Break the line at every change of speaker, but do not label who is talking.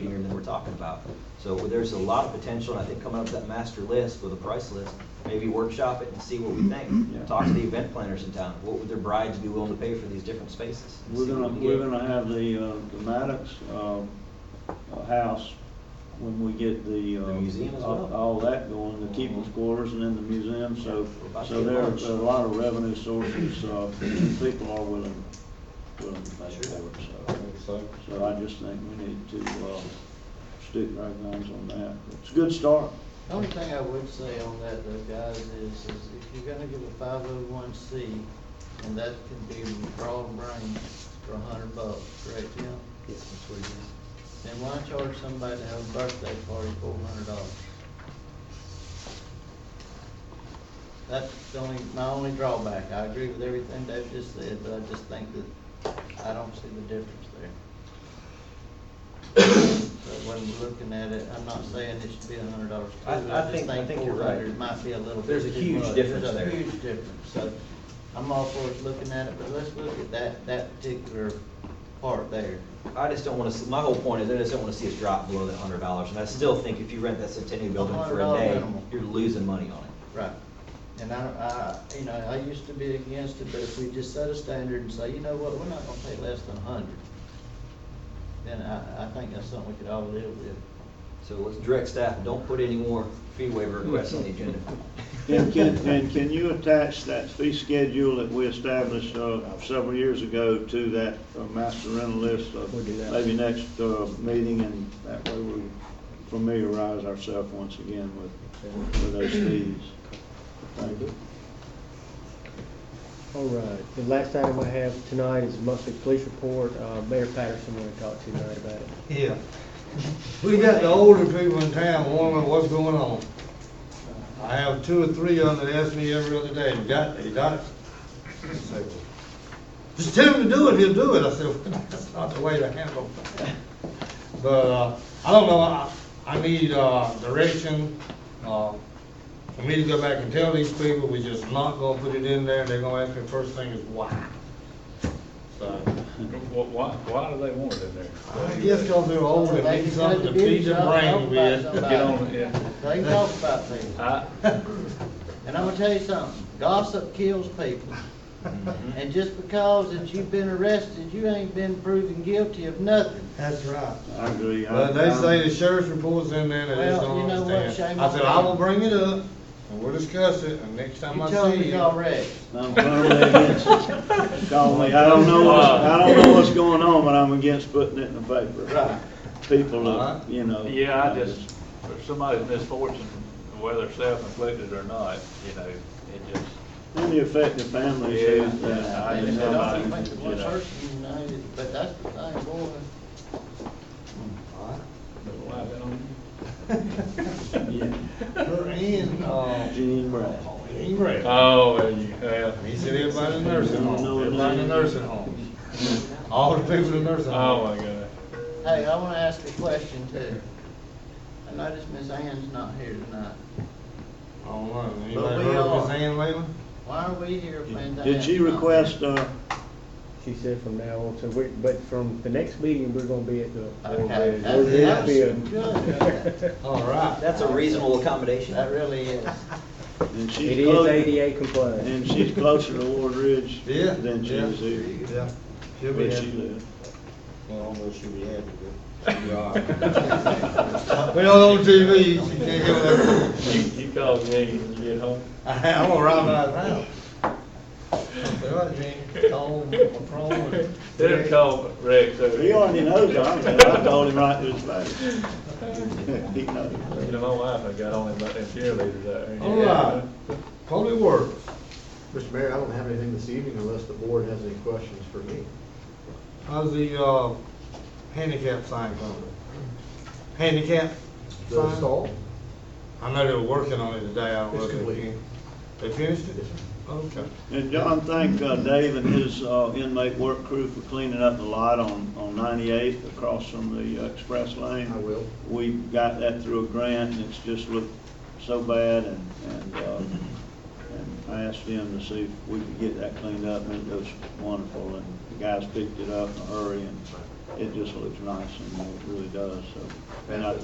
we're talking about. So there's a lot of potential, and I think coming up with that master list with a price list, maybe workshop it and see what we
Yeah.
think. Talk to the event planners in town, what would their brides be willing to pay for these different spaces? and
We're
see what
gonna,
we
we're
get.
gonna have the, uh, the Maddox, um, uh, house when we get the, uh.
The museum as well.
all- All that going, the keeper's
Mhm.
quarters and then the museum, so,
We're about to
so
get
there are
lunch.
a lot of revenue sources, uh, people are willing, willing to pay
Sure.
for it, so. So I just think we need to, uh, stick our guns on that. It's a good start.
The Only thing I would say on that though, guys, is, is if you're gonna give a five oh one C, and that can be broad range for a hundred bucks, correct, Jim?
Yes, that's what it is.
Then why charge somebody to have a birthday party four hundred dollars? That's the only, my only drawback. I agree with everything Dave just said, but I just think that I don't see the difference there. So when we're looking at it, I'm not saying it should be a hundred dollars.
I- I think- I think you're
Four
right.
hundred might be a little bit
There's a
too
huge
much.
difference
There's a
there.
Huge difference, so I'm all for us looking at it, but let's look at that, that particular part there.
I just don't wanna, see my whole point is, I just don't wanna see us drop below that hundred dollars, and I still think if you rent that Centennial Building for a
$100
day,
minimum.
you're losing money on it.
Right. And I, don't- I, you know, I used to be against it, but if we just set a standard and say, you know what, we're not gonna pay less than a hundred, then I, I think that's something we could all live with.
So let's direct staff, don't put any more fee waiver requests on the agenda.
And can, and can you attach that fee schedule that we established, uh, several years ago to that uh, master rental list? of
We'll do that.
Maybe next, uh, meeting and that way we familiarize ourselves once again with, with those fees. Thank you.
All right, the last item I have tonight is monthly police report. Uh, Mayor Patterson wanted to talk to you tonight about it.
Yeah. We got the older people in town wondering what's going on. I have two or three of them that ask me every other day, you got it, you got it? I say, Just tell him to do it, he'll do it. I said, "Well, that's not the way to handle it. But, uh, I don't know, I, I need, uh, direction, uh, for me to go back and tell these people, we just not gonna put it in there, they're gonna ask me first thing is why. So,
Wh- Why, why do they want it in there?
I guess cause they're older,
They
they need
can
something to
cut the
feed their
beans off,
brain
talk
with.
about
Get on it, yeah.
They can talk about things.
I,
And I'm gonna tell you something, gossip kills people.
Mm-hmm.
And just because that you've been arrested, you ain't been proven guilty of nothing.
That's right.
I agree. I-
But they
I'm-
say the sheriff's report's in there, and they just
Well, you
don't
know what,
understand.
shame
I
on
said, I
them."
will bring it up, and we'll discuss it, and next time
You
I
told
see
me
you.
y'all wrecked.
I'm firmly against it. Call me, I don't know what's, I don't know what's going on, but I'm against putting it in the paper.
Right.
People, are, you know.
yeah, I just, for somebody's misfortune, whether self-inflicted or not, you know, it just,
And the uh, affected families. who-
Yeah, yeah, I
who
They
know.
don't
somebody,
think the
you
one
know.
person united, but that's the thing, boy.
why they don't.
Her and, uh,
Gene Brad.
Jean Ray.
Oh, well, you, well,
He said everybody in the nursing
Don't know
home,
his
everybody in the
name.
nursing home. All the people in the nursing home.
oh my God.
Hey, I wanna ask a question too. I noticed Miss Ann's not here tonight.
I don't know,
But
anybody
we
heard of
are-
Miss Ann Whalen?
Why are we here playing that?
Did she request, uh,
She said from now on, so we, but from the next meeting, we're gonna be at the.
Okay,
We're
that's,
gonna
that's
be a-
good.
All right.
That's a reasonable
uh,
accommodation.
That really is.
and she's.
It is
clo-
ADA compliant.
And she's closer to Ward Ridge
Yeah.
than she
yeah,
is here.
Yeah. She'll be
Where she
happy.
lives.
Well, I don't know if she'll be happy, but she'll be all right. We don't on TV, she can't hear whatever.
You, you call Jane when you get home.
I- I'm gonna ride my round. Well, Gene, Tom, Patron.
They'll call Rex over.
He already knows, I mean, I told him right to his face. He knows.
You know, my wife, I got on about them cheerleaders out there.
All right, Holy Word.
Mr. Mayor, I don't have anything this evening unless the board has any questions for me.
How's the, uh, handicap sign coming? Handicap?
The
sign?
stall?
I know they were working on it today, I don't know.
It's
if they
complete.
fin- They finished it? Okay.
And John, thank uh, Dave and his uh, inmate work crew for cleaning up the lot on, on 98th across from the uh, express lane.
I will.
We got that through a grant and it's just looked so bad and, and, uh, and I asked them to see if we could get that cleaned up and it was wonderful and the guys picked it up in a hurry and it just looks nice and it really does, so. And I